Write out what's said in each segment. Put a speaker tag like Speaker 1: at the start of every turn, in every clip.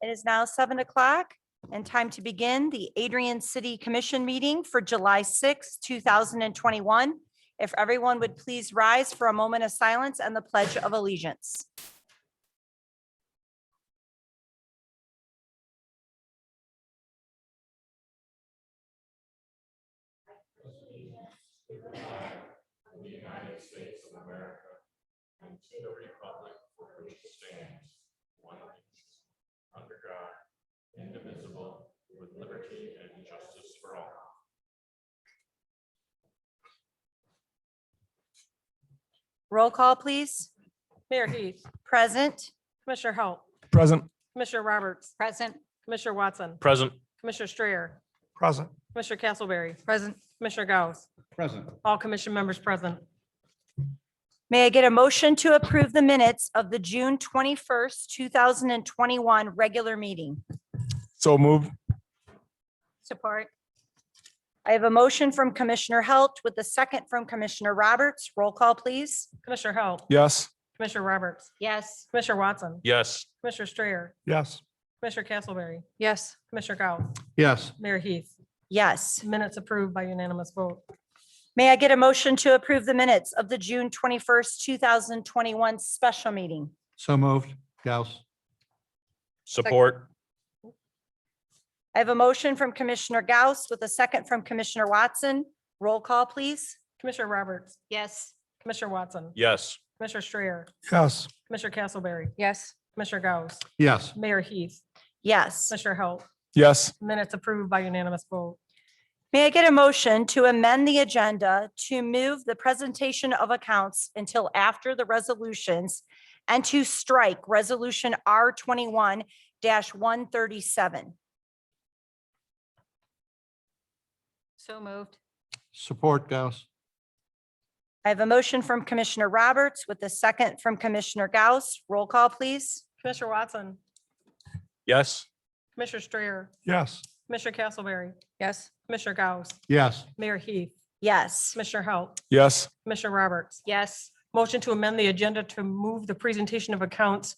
Speaker 1: It is now seven o'clock and time to begin the Adrian City Commission meeting for July sixth, two thousand and twenty-one. If everyone would please rise for a moment of silence and the pledge of allegiance. Roll call, please.
Speaker 2: Mayor Heath,
Speaker 1: Present.
Speaker 2: Commissioner Halt,
Speaker 3: Present.
Speaker 2: Commissioner Roberts,
Speaker 1: Present.
Speaker 2: Commissioner Watson,
Speaker 3: Present.
Speaker 2: Commissioner Strayer,
Speaker 3: Present.
Speaker 2: Commissioner Castleberry,
Speaker 1: Present.
Speaker 2: Commissioner Gauss,
Speaker 4: Present.
Speaker 2: all commission members present.
Speaker 1: May I get a motion to approve the minutes of the June twenty-first, two thousand and twenty-one regular meeting?
Speaker 3: So moved.
Speaker 1: Support. I have a motion from Commissioner Halt with a second from Commissioner Roberts. Roll call, please.
Speaker 2: Commissioner Halt,
Speaker 3: Yes.
Speaker 2: Commissioner Roberts,
Speaker 1: Yes.
Speaker 2: Commissioner Watson,
Speaker 3: Yes.
Speaker 2: Commissioner Strayer,
Speaker 3: Yes.
Speaker 2: Commissioner Castleberry,
Speaker 1: Yes.
Speaker 2: Commissioner Gauss,
Speaker 4: Yes.
Speaker 2: Mayor Heath,
Speaker 1: Yes.
Speaker 2: minutes approved by unanimous vote.
Speaker 1: May I get a motion to approve the minutes of the June twenty-first, two thousand twenty-one special meeting?
Speaker 4: So moved. Gauss.
Speaker 3: Support.
Speaker 1: I have a motion from Commissioner Gauss with a second from Commissioner Watson. Roll call, please.
Speaker 2: Commissioner Roberts,
Speaker 1: Yes.
Speaker 2: Commissioner Watson,
Speaker 3: Yes.
Speaker 2: Commissioner Strayer,
Speaker 3: Yes.
Speaker 2: Commissioner Castleberry,
Speaker 1: Yes.
Speaker 2: Commissioner Gauss,
Speaker 4: Yes.
Speaker 2: Mayor Heath,
Speaker 1: Yes.
Speaker 2: Commissioner Halt,
Speaker 3: Yes.
Speaker 2: minutes approved by unanimous vote.
Speaker 1: May I get a motion to amend the agenda to move the presentation of accounts until after the resolutions and to strike Resolution R twenty-one one thirty-seven?
Speaker 5: So moved.
Speaker 4: Support Gauss.
Speaker 1: I have a motion from Commissioner Roberts with a second from Commissioner Gauss. Roll call, please.
Speaker 2: Commissioner Watson,
Speaker 3: Yes.
Speaker 2: Commissioner Strayer,
Speaker 3: Yes.
Speaker 2: Commissioner Castleberry,
Speaker 5: Yes.
Speaker 2: Commissioner Gauss,
Speaker 4: Yes.
Speaker 2: Mayor Heath,
Speaker 1: Yes.
Speaker 2: Commissioner Halt,
Speaker 3: Yes.
Speaker 2: Commissioner Roberts.
Speaker 5: Yes.
Speaker 2: Motion to amend the agenda to move the presentation of accounts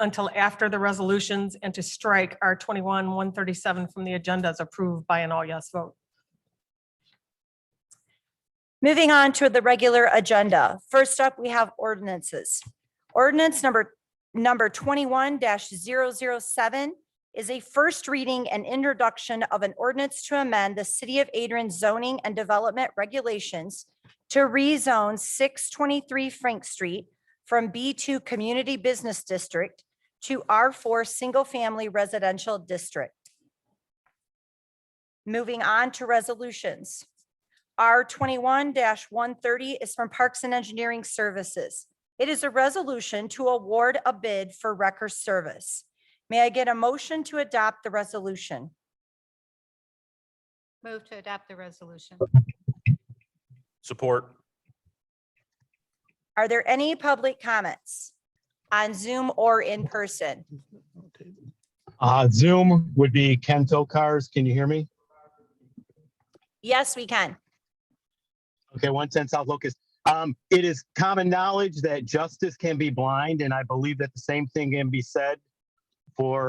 Speaker 2: until after the resolutions and to strike R twenty-one, one thirty-seven from the agenda as approved by an all yes vote.
Speaker 1: Moving on to the regular agenda. First up, we have ordinances. Ordinance number, number twenty-one 7 is a first reading and introduction of an ordinance to amend the City of Adrian zoning and development regulations to rezone six twenty-three Frank Street from B two Community Business District to R four Single Family Residential District. Moving on to resolutions. R twenty-one one thirty is from Parks and Engineering Services. It is a resolution to award a bid for wrecker service. May I get a motion to adopt the resolution?
Speaker 5: Move to adopt the resolution.
Speaker 3: Support.
Speaker 1: Are there any public comments on Zoom or in person?
Speaker 6: Uh, Zoom would be Kento Cars. Can you hear me?
Speaker 1: Yes, we can.
Speaker 6: Okay, one ten South Locust. Um, it is common knowledge that justice can be blind, and I believe that the same thing can be said for